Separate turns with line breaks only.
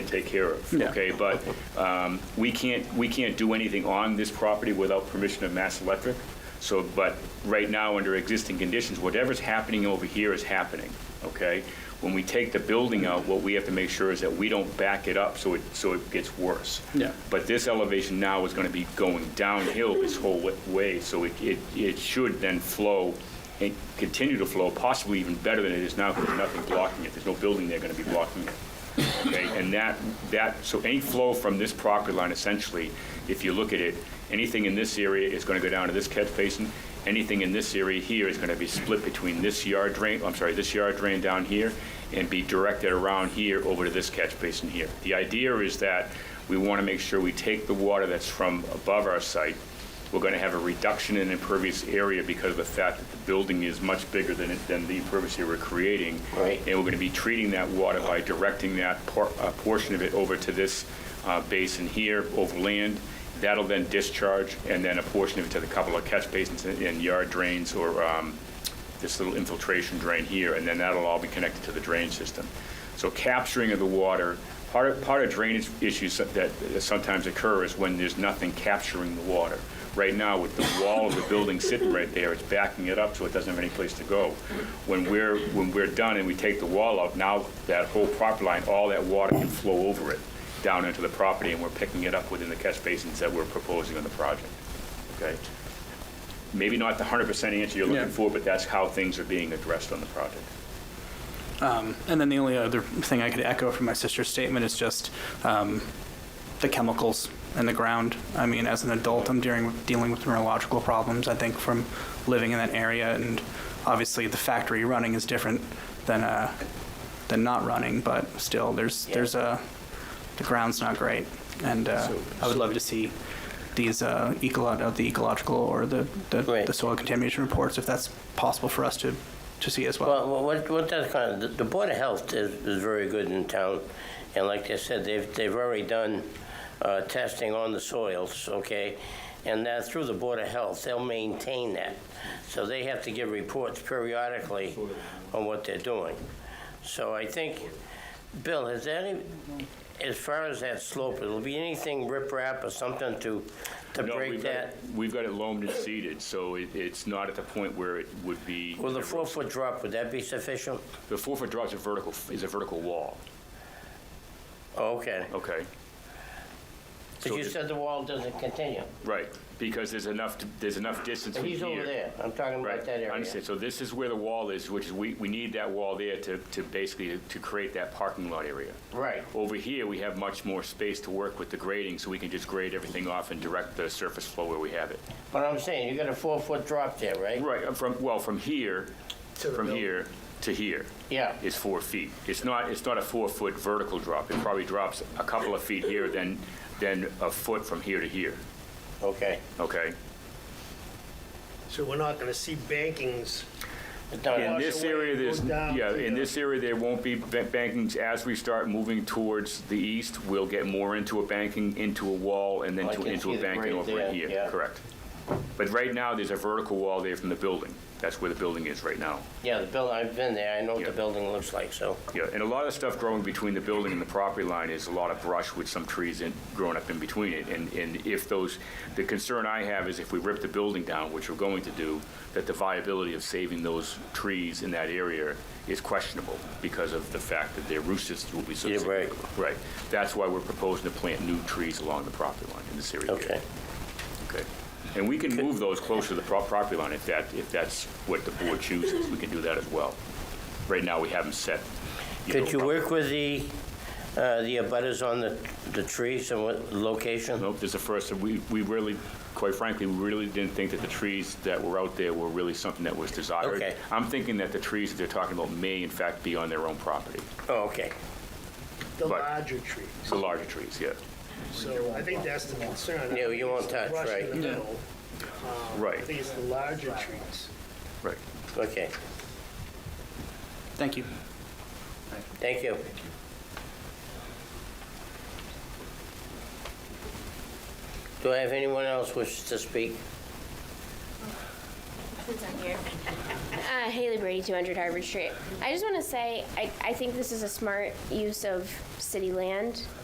take care of,
Yeah.
okay? But um, we can't, we can't do anything on this property without permission of Mass Electric. So, but right now, under existing conditions, whatever's happening over here is happening, okay? When we take the building out, what we have to make sure is that we don't back it up so it, so it gets worse.
Yeah.
But this elevation now is going to be going downhill this whole wa- way, so it, it, it should then flow and continue to flow, possibly even better than it is now, because there's nothing blocking it, there's no building there going to be blocking it. Okay, and that, that, so any flow from this property line essentially, if you look at it, anything in this area is going to go down to this catch basin, anything in this area here is going to be split between this yard drain, I'm sorry, this yard drain down here, and be directed around here over to this catch basin here. The idea is that we want to make sure we take the water that's from above our site, we're going to have a reduction in impervious area because of the fact that the building is much bigger than, it- than the impervious area we're creating.
Right.
And we're going to be treating that water by directing that por- uh, portion of it over to this uh, basin here, over land. That'll then discharge, and then a portion of it to the couple of catch basins and- and yard drains, or um, this little infiltration drain here, and then that'll all be connected to the drain system. So capturing of the water, part of, part of drainage issues that that sometimes occur is when there's nothing capturing the water. Right now, with the wall of the building sitting right there, it's backing it up so it doesn't have any place to go. When we're, when we're done and we take the wall out, now that whole property line, all that water can flow over it down into the property, and we're picking it up within the catch basins that we're proposing on the project. Okay? Maybe not the 100% answer you're
Yeah.
looking for, but that's how things are being addressed on the project.
And then the only other thing I could echo from my sister's statement is just um, the chemicals in the ground. I mean, as an adult, I'm dealing dealing with neurological problems. I think from living in that area, and obviously the factory running is different than uh, than not running. But still, there's
Yeah.
there's a the ground's not great, and uh,
So-
I would love to see these uh, ecolo- uh, the ecological or the the,
Right.
the soil contamination reports, if that's possible for us to to see as well.
Well, well, what, what that's kind of, the- the Board of Health is, is very good in town, and like they said, they've, they've already done uh, testing on the soils, okay? And that, through the Board of Health, they'll maintain that. So they have to give reports periodically on what they're doing. So I think, Bill, has there any, as far as that slope, it'll be anything riprap or something to, to
No,
break
we've got
that?
it- We've got it loamed and seeded, so it- it's not at the point where it would be.
With a four-foot drop, would that be sufficient?
The four-foot drop is a vertical, is a vertical wall,
Okay,
okay?
but you said the wall doesn't continue.
Right, because there's enough, there's enough distance
But
from here.
He's over there. I'm talking
Right,
about
I
that area.
understand. So this is where the wall is, which is, we, we need that wall there to, to basically, to create that parking lot area.
Right.
Over here, we have much more space to work with the grading, so we can just grade everything off and direct the surface flow where we have it.
But I'm saying, you got a four-foot drop there, right?
Right, uh, from, well, from here, from here to here
Yeah.
is four feet. It's not, it's not a four-foot vertical drop. It probably drops a couple of feet here, then, then a foot from here to here,
Okay.
okay?
So we're not gonna see bankings.
It's not-
In
Wash
this
away
area,
and go
there's,
down
yeah,
to
in
the-
this area, there won't be ba- bankings. As we start moving towards the east, we'll get more into a banking, into a wall, and then
Oh, I
to-
can
into
see
a
the
banking
grade
over
there,
in here.
yeah.
Correct. But right now, there's a vertical wall there from the building. That's where the building is right now.
Yeah, the building, I've been there. I know what
Yeah.
the building looks like, so.
Yeah, and a lot of stuff growing between the building and the property line is a lot of brush with some trees in, growing up in between it. And, and if those, the concern I have is if we rip the building down, which we're going to do, that the viability of saving those trees in that area is questionable because of the fact that their root systems will be so.
Yeah, right.
Right. That's why we're proposing to plant new trees along the property line in this area. here.
Okay.
Okay. And we can move those closer to the pro- property line if that, if that's what the board chooses. We can do that as well. Right now, we haven't set. know,
Could you
proper-
work with the, uh, the abutters on the, the trees and what, location?
Nope, this is the first, we, we really, quite frankly, we really didn't think that the trees that were out there were really something that was desired.
Okay.
I'm thinking that the trees that they're talking about may in fact be on their own property,
Oh, okay.
The
Right.
larger trees.
the larger trees, yeah.
So I think that's the concern.
Yeah, you won't touch,
Brush in
right.
the middle. I
Right,
think it's the larger trees.
right.
Okay.
Thank you.
Thank you. Do I have anyone else wishes to speak?
Uh, Haley Brady, 200 Harvard Street. I just want to say, I, I think this is a smart use of city land.